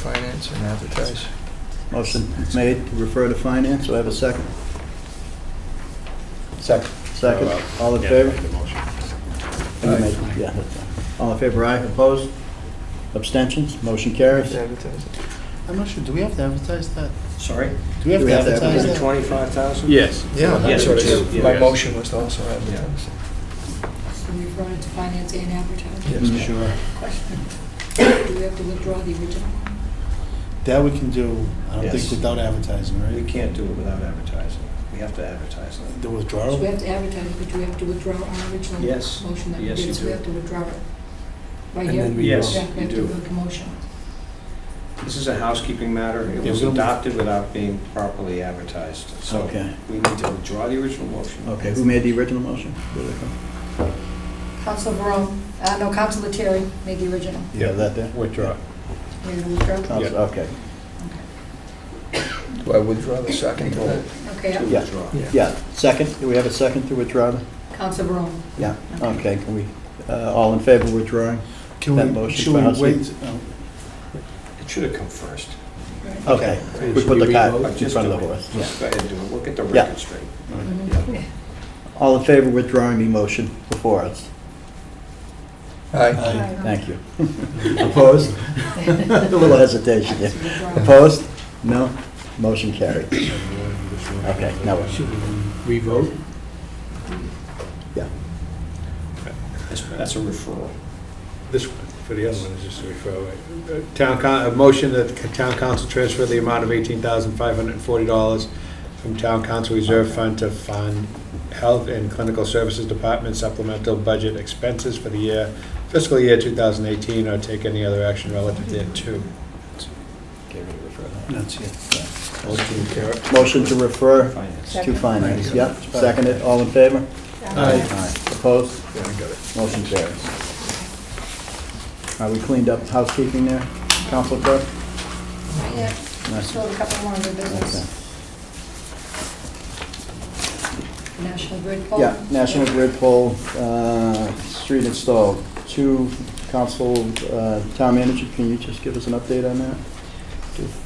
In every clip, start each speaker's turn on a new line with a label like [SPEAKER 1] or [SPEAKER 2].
[SPEAKER 1] finance and advertise.
[SPEAKER 2] Motion made to refer to finance, do I have a second?
[SPEAKER 3] Second.
[SPEAKER 2] Second, all in favor? You made it, yeah, that's fine. All in favor, aye, opposed? Abstentions, motion carries.
[SPEAKER 1] Advertise.
[SPEAKER 4] I'm not sure, do we have to advertise that?
[SPEAKER 3] Sorry?
[SPEAKER 4] Do we have
[SPEAKER 2] Do
[SPEAKER 4] to advertise
[SPEAKER 2] advertise
[SPEAKER 4] that?
[SPEAKER 3] Twenty-five thousand?
[SPEAKER 5] Yes.
[SPEAKER 1] Yeah,
[SPEAKER 3] Yes,
[SPEAKER 1] that's what it
[SPEAKER 3] we do.
[SPEAKER 1] is. My
[SPEAKER 5] Yes.
[SPEAKER 1] motion was to also advertise.
[SPEAKER 6] So we brought it to finance and advertising.
[SPEAKER 2] Mm,
[SPEAKER 1] Yes.
[SPEAKER 2] Sure.
[SPEAKER 6] Question, do we have to withdraw the original?
[SPEAKER 4] That we can do, I don't
[SPEAKER 3] Yes.
[SPEAKER 4] think without advertising,
[SPEAKER 3] We
[SPEAKER 4] right?
[SPEAKER 3] can't do it without advertising. We have to advertise it.
[SPEAKER 4] The
[SPEAKER 6] So we
[SPEAKER 4] withdrawal?
[SPEAKER 6] have to advertise, but do we have to withdraw our original
[SPEAKER 3] Yes.
[SPEAKER 6] motion that we
[SPEAKER 3] Yes, you
[SPEAKER 6] did? So
[SPEAKER 3] do.
[SPEAKER 6] we have to withdraw it. Right
[SPEAKER 4] And
[SPEAKER 6] here?
[SPEAKER 4] then we
[SPEAKER 3] Yes,
[SPEAKER 6] Yeah, we
[SPEAKER 3] you
[SPEAKER 6] have to
[SPEAKER 3] do.
[SPEAKER 6] vote the motion.
[SPEAKER 3] This is a housekeeping matter. It
[SPEAKER 4] Yeah,
[SPEAKER 3] was
[SPEAKER 4] we'll-
[SPEAKER 3] adopted without being properly advertised. So
[SPEAKER 2] Okay,
[SPEAKER 3] we need to withdraw the original motion.
[SPEAKER 2] okay, who made the original motion? Where did it come?
[SPEAKER 6] Council Barone, uh, no, Council Terry made the original.
[SPEAKER 2] Yeah, that there?
[SPEAKER 5] Withdraw.
[SPEAKER 6] We're going to withdraw?
[SPEAKER 2] Counsel- Oh, Okay,
[SPEAKER 1] Do I withdraw the second to that?
[SPEAKER 3] To
[SPEAKER 6] Okay,
[SPEAKER 2] Yeah.
[SPEAKER 3] withdraw.
[SPEAKER 2] yeah, second, do we have a second to withdraw?
[SPEAKER 6] Council Barone.
[SPEAKER 2] Yeah, okay, can we, uh, all in favor of withdrawing?
[SPEAKER 4] Can
[SPEAKER 2] That
[SPEAKER 4] we,
[SPEAKER 2] motion
[SPEAKER 4] should we
[SPEAKER 2] passes.
[SPEAKER 4] wait? Oh,
[SPEAKER 3] It should have come first.
[SPEAKER 2] Okay,
[SPEAKER 3] Right.
[SPEAKER 2] we put the cat
[SPEAKER 3] But
[SPEAKER 2] in
[SPEAKER 3] just
[SPEAKER 2] front of the
[SPEAKER 3] do it.
[SPEAKER 2] horse. Yeah.
[SPEAKER 3] Just go ahead and do it. We'll get the
[SPEAKER 2] Yeah.
[SPEAKER 3] record straight.
[SPEAKER 6] Mhm.
[SPEAKER 2] All in favor of withdrawing the motion before us?
[SPEAKER 1] Aye.
[SPEAKER 6] Aye.
[SPEAKER 2] Thank you. Opposed? A little hesitation there. Opposed? No? Motion carried. Okay, now what?
[SPEAKER 5] Should we revote?
[SPEAKER 3] That's- That's a referral.
[SPEAKER 5] This one, for the other one, is just a referral. right? Uh, Town, coun- a motion that the town council transfer the amount of $18,540 from town council reserve fund to fund health and clinical services department supplemental budget expenses for the year, fiscal year 2018, or take any other action relative thereto.
[SPEAKER 3] Get rid of referral.
[SPEAKER 4] That's it.
[SPEAKER 5] Motion carried.
[SPEAKER 2] Motion to refer
[SPEAKER 3] Finance.
[SPEAKER 2] to finance. Yep, seconded, all in favor?
[SPEAKER 5] Aye.
[SPEAKER 2] Aye. Opposed?
[SPEAKER 5] Yeah, I got it.
[SPEAKER 2] Motion carries. Are we cleaned up housekeeping there, Council Clerk?
[SPEAKER 6] Not yet.
[SPEAKER 2] Nice.
[SPEAKER 6] Still have a couple more under business. National Grid poll.
[SPEAKER 2] Yeah, National Grid poll, uh, street installed. Two, Council, uh, Town Manager, can you just give us an update on that?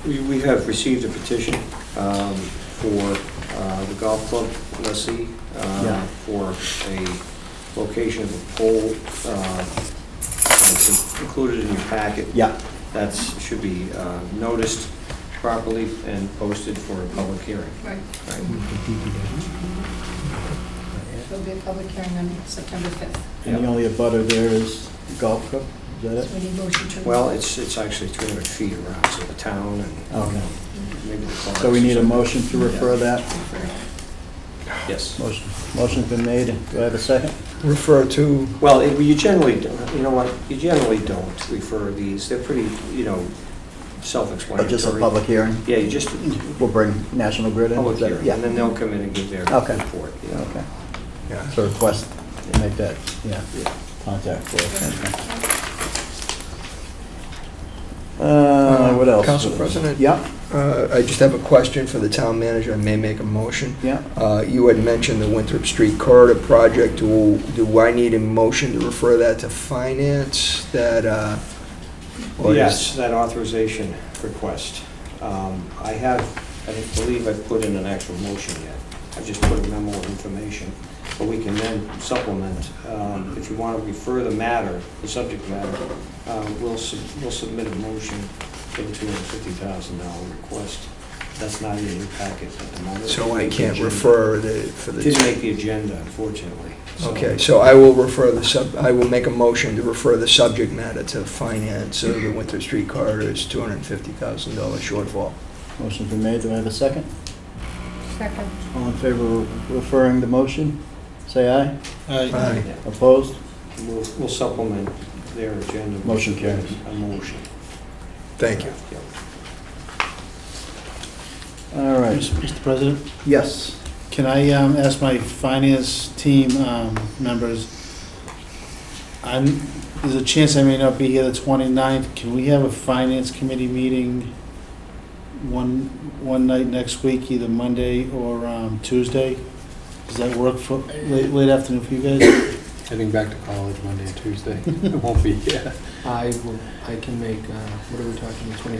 [SPEAKER 3] We we have received a petition um, for uh, the golf club lessee uh,
[SPEAKER 2] Yeah.
[SPEAKER 3] for a location of a pole, uh, which is included in your packet.
[SPEAKER 2] Yeah,
[SPEAKER 3] That should be uh, noticed properly and posted for a public hearing.
[SPEAKER 6] Right,
[SPEAKER 3] right?
[SPEAKER 6] there'll be a public hearing on September 5th.
[SPEAKER 2] and the
[SPEAKER 3] Yeah.
[SPEAKER 2] only abutter there is Golf Club, is that it?
[SPEAKER 6] So we need motion to...
[SPEAKER 3] Well, it's, it's actually 300 feet around, so the town and
[SPEAKER 2] Okay,
[SPEAKER 3] maybe the club.
[SPEAKER 2] so we need a motion to refer that.
[SPEAKER 3] Yes.
[SPEAKER 2] Motion, motion's been made, do I have a second?
[SPEAKER 1] Refer to,
[SPEAKER 3] Well, it- you generally, don't- you know what, you generally don't refer these, they're pretty, you know,
[SPEAKER 2] Or
[SPEAKER 3] self-explanatory.
[SPEAKER 2] just a public hearing?
[SPEAKER 3] Yeah, you just,
[SPEAKER 2] We'll bring National Grid in?
[SPEAKER 3] public
[SPEAKER 2] is that-
[SPEAKER 3] hearing,
[SPEAKER 2] yeah.
[SPEAKER 3] and then they'll come in and give their
[SPEAKER 2] Okay.
[SPEAKER 3] report. you know.
[SPEAKER 2] Okay,
[SPEAKER 5] Yeah.
[SPEAKER 2] so request, make that, yeah,
[SPEAKER 3] Yeah.
[SPEAKER 2] contact for us. okay. Uh, what else?
[SPEAKER 1] Council President?
[SPEAKER 2] Yeah,
[SPEAKER 1] uh, I just have a question for the town manager. I may make a motion.
[SPEAKER 2] yeah.
[SPEAKER 1] Uh, You had mentioned the Winthrop Street corridor project. Do do I need a motion to refer that to finance, that, uh, or is-
[SPEAKER 3] Yes, that authorization request. Um, I have, I don't believe I've put in an actual motion yet. I've just put a memo of information, but we can then supplement. Um, If you want to refer the matter, the subject matter, uh, we'll sub- we'll submit a motion for the $250,000 request. That's not in your packet at the moment.
[SPEAKER 1] so I can't refer the, for
[SPEAKER 3] It
[SPEAKER 1] the...
[SPEAKER 3] Didn't make the agenda, unfortunately. so-
[SPEAKER 1] Okay, so I will refer the sub, I will make a motion to refer the subject matter to finance of the Winter Street corridor's $250,000 shortfall.
[SPEAKER 2] Motion's been made, do I have a second?
[SPEAKER 6] Second.
[SPEAKER 2] All in favor of referring the motion, say aye.
[SPEAKER 4] Aye.
[SPEAKER 3] Yeah.
[SPEAKER 2] Opposed?
[SPEAKER 3] We'll we'll supplement their agenda. with
[SPEAKER 2] Motion carries.
[SPEAKER 3] A motion.
[SPEAKER 1] Thank you.
[SPEAKER 3] Yeah.
[SPEAKER 2] All right,
[SPEAKER 4] Mr. President?
[SPEAKER 2] yes.
[SPEAKER 4] Can I um, ask my finance team um, members, I'm, there's a chance I may not be here the 29th, can we have a finance committee meeting one, one night next week, either Monday or um, Tuesday? Does that work for, late late afternoon for you guys?
[SPEAKER 5] Heading back to college Monday and Tuesday. I won't be here.
[SPEAKER 7] I will, I can make, uh, what are we talking, the 25th?